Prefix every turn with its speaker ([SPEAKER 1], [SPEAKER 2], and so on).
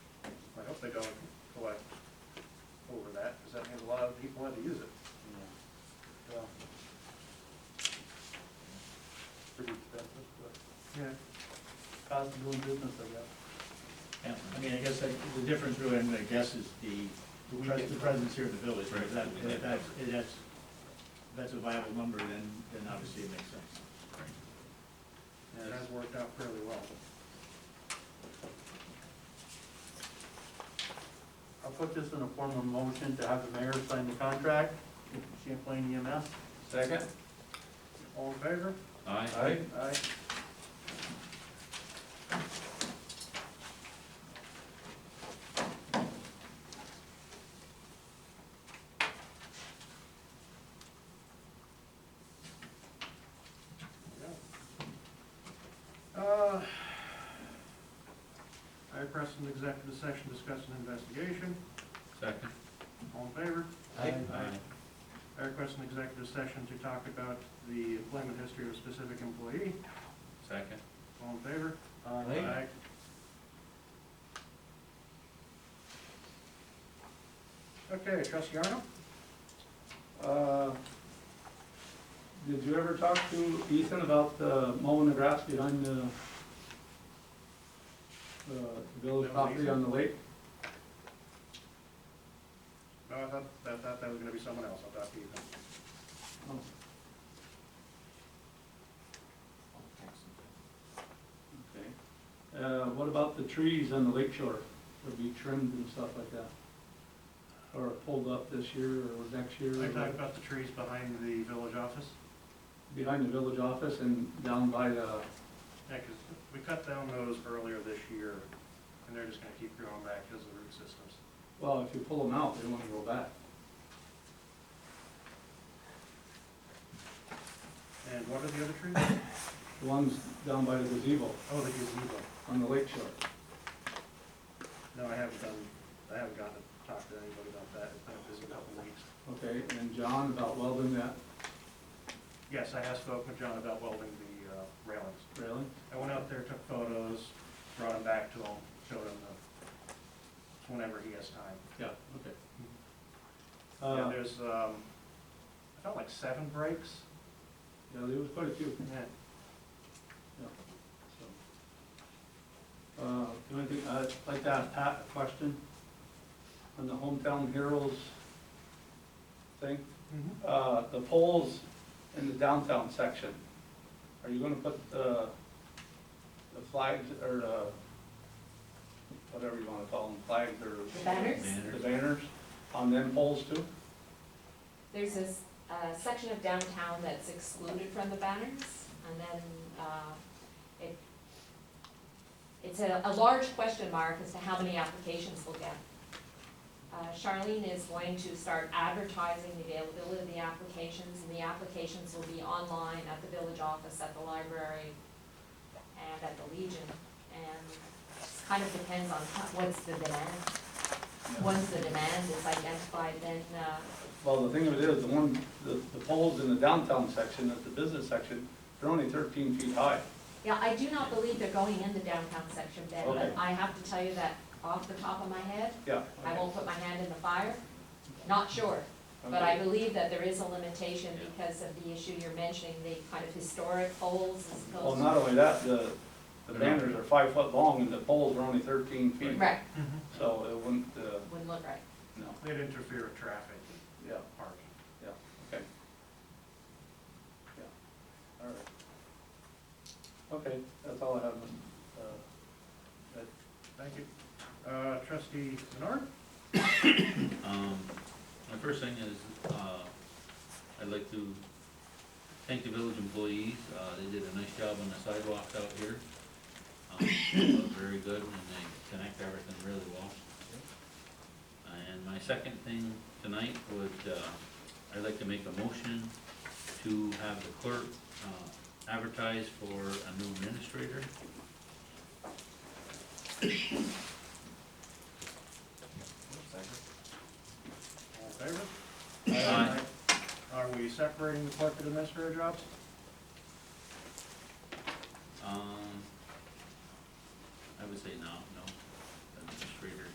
[SPEAKER 1] they're gonna collect over that, because that means a lot of people had to use it. Um,
[SPEAKER 2] Yeah.
[SPEAKER 1] Pretty expensive, but.
[SPEAKER 2] Yeah. Cost of doing business, I guess.
[SPEAKER 3] Yeah, I mean, I guess that- the difference really, I'm gonna guess, is the,
[SPEAKER 2] we
[SPEAKER 3] pres-
[SPEAKER 2] get-
[SPEAKER 3] the presence here of the village. If that-
[SPEAKER 4] Right.
[SPEAKER 3] if that's, if that's, if that's a viable number, then, then obviously it makes sense.
[SPEAKER 1] It has worked out fairly well.
[SPEAKER 2] I'll put this in a formal motion to have the mayor sign the contract, E Champlain EMS.
[SPEAKER 4] Second?
[SPEAKER 1] All in favor?
[SPEAKER 4] Aye.
[SPEAKER 1] Aye. Uh, I press an executive session discussing investigation.
[SPEAKER 4] Second?
[SPEAKER 1] All in favor?
[SPEAKER 2] Aye.
[SPEAKER 1] I request an executive session to talk about the employment history of a specific employee.
[SPEAKER 4] Second?
[SPEAKER 1] All in favor?
[SPEAKER 4] Aye.
[SPEAKER 1] Okay, trustee Arnold?
[SPEAKER 2] Uh, Did you ever talk to Ethan about the mowing the grass behind the, the village
[SPEAKER 1] That was
[SPEAKER 2] property
[SPEAKER 1] Ethan?
[SPEAKER 2] on the lake?
[SPEAKER 1] No, I thought, I thought that was gonna be someone else, I thought you.
[SPEAKER 2] Oh, Okay. Uh, what about the trees on the lake shore? Would be trimmed and stuff like that? Or pulled up this year or next year?
[SPEAKER 1] Are
[SPEAKER 2] or
[SPEAKER 1] you talking about the trees behind the village office?
[SPEAKER 2] Behind the village office and down by the,
[SPEAKER 1] Yeah, 'cause we cut down those earlier this year, and they're just gonna keep growing back because of the root systems.
[SPEAKER 2] well, if you pull them out, they won't grow back.
[SPEAKER 1] And what are the other trees?
[SPEAKER 2] The ones down by the gazebo
[SPEAKER 1] Oh, the gazebo.
[SPEAKER 2] on the lake shore.
[SPEAKER 1] No, I haven't done, I haven't gotten to talk to anybody about that, it's been a busy couple of weeks.
[SPEAKER 2] Okay, and John about welding that
[SPEAKER 1] Yes, I have spoken with John about welding the uh, railings.
[SPEAKER 2] railing?
[SPEAKER 1] I went out there, took photos, brought them back to him, showed him the, whenever he has time.
[SPEAKER 2] Yeah, okay.
[SPEAKER 1] Yeah,
[SPEAKER 2] Uh,
[SPEAKER 1] there's, um, I felt like seven breaks.
[SPEAKER 2] yeah, there was quite a few.
[SPEAKER 1] Yeah.
[SPEAKER 2] Yeah, so. Uh, The only thing, I'd like to ask Pat a question on the hometown heroes thing. Uh, The poles in the downtown section, are you gonna put the, the flags or the, whatever you wanna call them, flags
[SPEAKER 5] The
[SPEAKER 2] or
[SPEAKER 5] banners,
[SPEAKER 2] the
[SPEAKER 4] Manners?
[SPEAKER 2] banners on them poles too?
[SPEAKER 5] there's this uh, section of downtown that's excluded from the banners, and then uh, it, it's a, a large question mark as to how many applications we'll get. Uh, Charlene is going to start advertising the availability of the applications, and the applications will be online at the village office, at the library, and at the Legion. And it kind of depends on how- what's the demand. Once the demand is identified, then uh,
[SPEAKER 2] Well, the thing of it is, the one, the, the poles in the downtown section, at the business section, they're only thirteen feet high.
[SPEAKER 5] Yeah, I do not believe they're going in the downtown section, Ben, but
[SPEAKER 2] Okay.
[SPEAKER 5] I have to tell you that off the top of my head,
[SPEAKER 2] Yeah.
[SPEAKER 5] I won't put my hand in the fire. Not sure, but I
[SPEAKER 2] Okay.
[SPEAKER 5] believe that there is a limitation
[SPEAKER 4] Yeah.
[SPEAKER 5] because of the issue you're mentioning, the kind of historic poles as
[SPEAKER 2] Well,
[SPEAKER 5] opposed.
[SPEAKER 2] not only that, the, the
[SPEAKER 4] They're not-
[SPEAKER 2] banners are five foot long and the poles are only thirteen feet,
[SPEAKER 5] Right,
[SPEAKER 2] so it wouldn't, uh,
[SPEAKER 5] wouldn't look right.
[SPEAKER 2] no,
[SPEAKER 1] They'd interfere with traffic
[SPEAKER 2] yeah,
[SPEAKER 1] and parking.
[SPEAKER 2] yeah, okay. Yeah, all right. Okay, that's all I have, uh, that
[SPEAKER 1] Thank you. Uh, trustee Menard?
[SPEAKER 4] Um, my first thing is, uh, I'd like to thank the village employees, uh, they did a nice job on the sidewalks out here. Um, they look very good and they connect everything really well. And my second thing tonight would, uh, I'd like to make a motion to have the clerk, uh, advertise for a new administrator.
[SPEAKER 1] All in favor?
[SPEAKER 4] Aye.
[SPEAKER 1] Are we separating the clerk and administrator jobs?
[SPEAKER 4] Um,